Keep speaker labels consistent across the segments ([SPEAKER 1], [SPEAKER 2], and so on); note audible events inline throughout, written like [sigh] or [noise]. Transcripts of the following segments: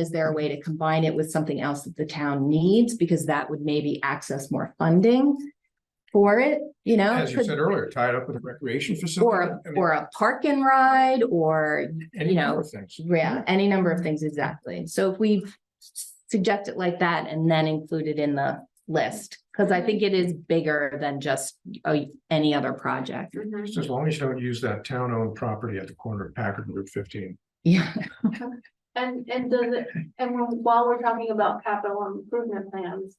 [SPEAKER 1] Is there a way to combine it with something else that the town needs? Because that would maybe access more funding for it, you know?
[SPEAKER 2] As you
[SPEAKER 1] Could-
[SPEAKER 2] said earlier, tie it up with a recreation facility.
[SPEAKER 1] Or, or a park and ride, or, you know, yeah, any number of things, exactly. So if we suggest it like that and then include it in the list, because I think it is bigger than just uh, any other project.
[SPEAKER 3] Mm-hmm.
[SPEAKER 2] Just as long as you don't use that town-owned property at the corner of Packard and Route fifteen.
[SPEAKER 1] Yeah,
[SPEAKER 3] And, and does it, and when- while we're talking about capital improvement plans,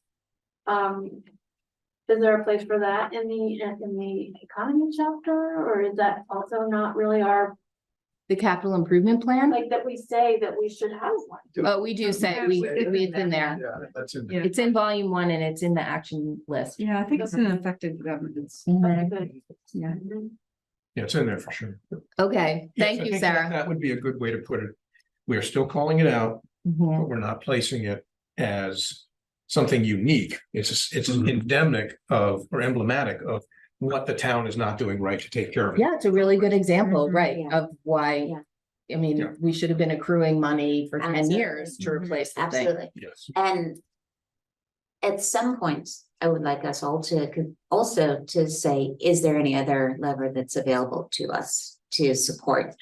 [SPEAKER 3] um. Is there a place for that in the, in the economy chapter, or is that also not really our,
[SPEAKER 1] the capital improvement plan,
[SPEAKER 3] like, that we say that we should have one?
[SPEAKER 1] oh, we do say, we, we, it's in there.
[SPEAKER 2] Yeah, that's in.
[SPEAKER 1] It's in volume one and it's in the action list.
[SPEAKER 4] Yeah, I think it's an effective governance.
[SPEAKER 3] Okay, good.
[SPEAKER 4] Yeah.
[SPEAKER 3] Mhm.
[SPEAKER 5] Mm-hmm.
[SPEAKER 2] Yeah, it's in there for sure.
[SPEAKER 1] Okay,
[SPEAKER 2] Yes,
[SPEAKER 1] thank
[SPEAKER 2] I
[SPEAKER 1] you,
[SPEAKER 2] think that-
[SPEAKER 1] Sarah.
[SPEAKER 2] That would be a good way to put it. We're still calling it out,
[SPEAKER 1] Mhm.
[SPEAKER 2] but we're not placing it as something unique. It's, it's
[SPEAKER 6] Mhm.
[SPEAKER 2] endemic of, or emblematic of what the town is not doing right to take care of. it.
[SPEAKER 1] Yeah, it's a really good example,
[SPEAKER 4] Mhm,
[SPEAKER 1] right,
[SPEAKER 7] yeah.
[SPEAKER 1] of why, I
[SPEAKER 2] Yeah.
[SPEAKER 1] mean, we should have been accruing money for ten
[SPEAKER 7] Absolutely.
[SPEAKER 1] years to
[SPEAKER 4] Mhm.
[SPEAKER 1] replace the thing.
[SPEAKER 7] Absolutely.
[SPEAKER 2] Yes.
[SPEAKER 7] And at some point, I would like us all to con- also to say, is there any other lever that's available to us to support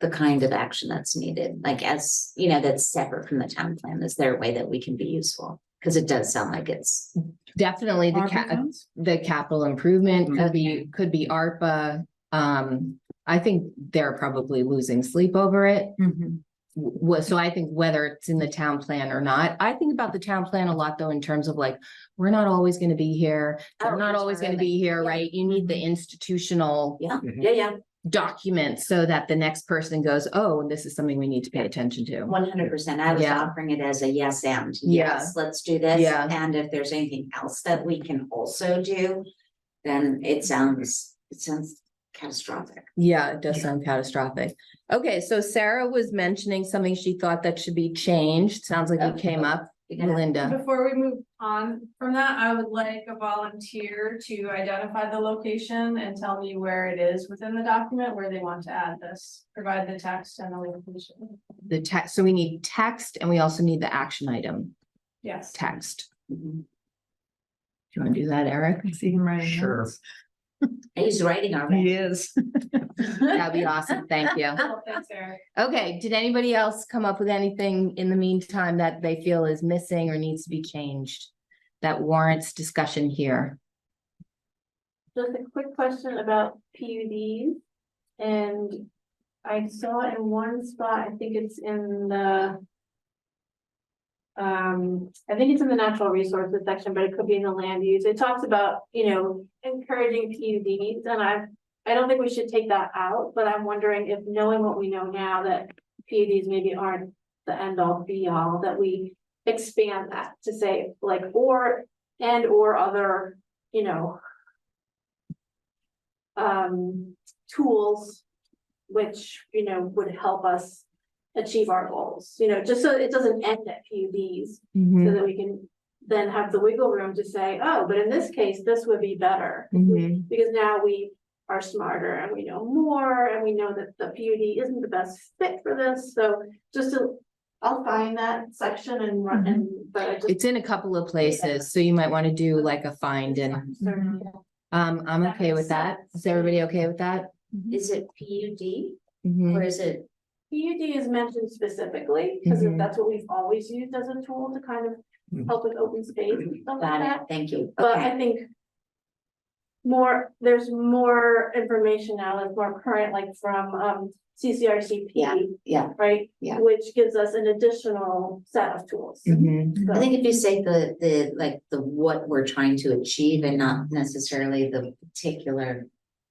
[SPEAKER 7] the kind of action that's needed, like as, you know, that's separate from the town plan? Is there a way that we can be useful? Because it does sound like it's,
[SPEAKER 1] Definitely the
[SPEAKER 4] ARPA
[SPEAKER 1] ca-
[SPEAKER 4] funds?
[SPEAKER 1] the capital improvement could be,
[SPEAKER 7] Okay.
[SPEAKER 1] could be ARPA. Um, I think they're probably losing sleep over it. Wa- so I think whether it's in the town plan or not, I think about the town plan a lot though, in terms of like, we're not always gonna be here. We're
[SPEAKER 7] Oh,
[SPEAKER 1] not always gonna
[SPEAKER 7] absolutely.
[SPEAKER 1] be here, right? You need the institutional
[SPEAKER 7] yeah, yeah,
[SPEAKER 1] document so that the next person goes, oh, this is something we need to pay attention to.
[SPEAKER 7] one hundred percent. I was
[SPEAKER 1] Yeah.
[SPEAKER 7] offering it as a yes and.
[SPEAKER 1] Yeah.
[SPEAKER 7] Yes, Let's do this.
[SPEAKER 1] Yeah.
[SPEAKER 7] And if there's anything else that we can also do, then it sounds, it sounds catastrophic.
[SPEAKER 1] Yeah, it does sound catastrophic. Okay, so Sarah was mentioning something she thought that should be changed. Sounds like it
[SPEAKER 7] Okay.
[SPEAKER 1] came up,
[SPEAKER 7] You gotta-
[SPEAKER 1] Melinda.
[SPEAKER 5] Before we move on from that, I would like a volunteer to identify the location and tell me where it is within the document where they want to add this. Provide the text and the location.
[SPEAKER 1] The text, so we need text and we also need the action item,
[SPEAKER 5] Yes.
[SPEAKER 1] text.
[SPEAKER 7] Mhm.
[SPEAKER 1] Do you want to do that, [laughs] Eric?
[SPEAKER 4] I see him writing.
[SPEAKER 2] Sure.
[SPEAKER 4] notes.
[SPEAKER 7] He's writing our.
[SPEAKER 4] He is.
[SPEAKER 1] That'd be awesome. Thank you.
[SPEAKER 5] Well, Thanks, Eric.
[SPEAKER 1] Okay, did anybody else come up with anything in the meantime that they feel is missing or needs to be changed? That warrants discussion here?
[SPEAKER 3] Just a quick question about PUDs. And I saw in one spot, I think it's in the. Um, I think it's in the natural resources section, but it could be in the land use. It talks about, you know, encouraging PUDs and I. I don't think we should take that out, but I'm wondering if knowing what we know now that PUDs maybe aren't the end all be all, that we. Expand that to say like, or, and or other, you know, um, tools. Which, you know, would help us achieve our goals, you know, just so it doesn't end at PUDs.
[SPEAKER 1] Mm-hmm.
[SPEAKER 3] So that we can then have the wiggle room to say, oh, but in this case, this would be better.
[SPEAKER 1] Mhm.
[SPEAKER 3] Because now we are smarter and we know more and we know that the PUD isn't the best fit for this, so just to. I'll find that section and run and, but I just.
[SPEAKER 1] It's in a couple of places, so you might want to do like a find and,
[SPEAKER 3] Sorry.
[SPEAKER 1] um, I'm
[SPEAKER 3] That
[SPEAKER 1] okay
[SPEAKER 3] makes
[SPEAKER 1] with that.
[SPEAKER 3] sense.
[SPEAKER 1] Is everybody okay with that?
[SPEAKER 7] Is it P U D
[SPEAKER 1] Mhm.
[SPEAKER 3] Mm-hmm.
[SPEAKER 7] or is it?
[SPEAKER 3] PUD is mentioned specifically, because
[SPEAKER 1] Mhm.
[SPEAKER 3] that's what we've always used as a tool to kind
[SPEAKER 2] Mhm.
[SPEAKER 3] of help with open space and stuff like
[SPEAKER 7] Got
[SPEAKER 3] that.
[SPEAKER 7] it. Thank you.
[SPEAKER 3] But
[SPEAKER 7] Okay.
[SPEAKER 3] I think more, there's more information now that's more current, like from um
[SPEAKER 7] Yeah,
[SPEAKER 3] CCRCP,
[SPEAKER 7] Yeah.
[SPEAKER 3] right?
[SPEAKER 7] yeah.
[SPEAKER 3] Which gives us an additional set of tools.
[SPEAKER 1] Mhm.
[SPEAKER 7] I
[SPEAKER 3] So-
[SPEAKER 7] think if you say the, the, like, the, what we're trying to achieve and not necessarily the particular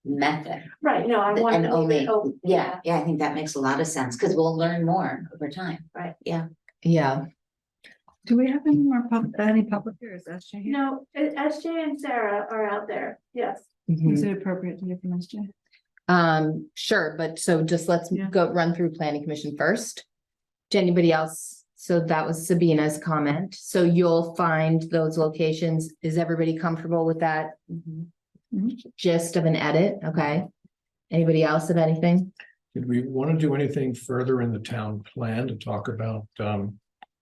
[SPEAKER 7] method.
[SPEAKER 3] Right, no, I want
[SPEAKER 7] And
[SPEAKER 3] to leave
[SPEAKER 7] only,
[SPEAKER 3] it open.
[SPEAKER 7] yeah, yeah, I think that makes a lot of sense because we'll learn more over time.
[SPEAKER 3] Right.
[SPEAKER 7] Yeah.
[SPEAKER 1] Yeah,
[SPEAKER 4] Do we have any more pub, any public hearings? That's Shaheen.
[SPEAKER 3] No, S- SJ and Sarah are out there, yes.
[SPEAKER 1] Mhm.
[SPEAKER 4] Is it appropriate to give them SJ?
[SPEAKER 1] um, sure, but so just let's
[SPEAKER 4] Yeah.
[SPEAKER 1] go run through planning commission first. To anybody else? So that was Sabina's comment. So you'll find those locations. Is everybody comfortable with that gist of an edit? Okay. Anybody else have anything?
[SPEAKER 2] Did we want to do anything further in the town plan to talk about um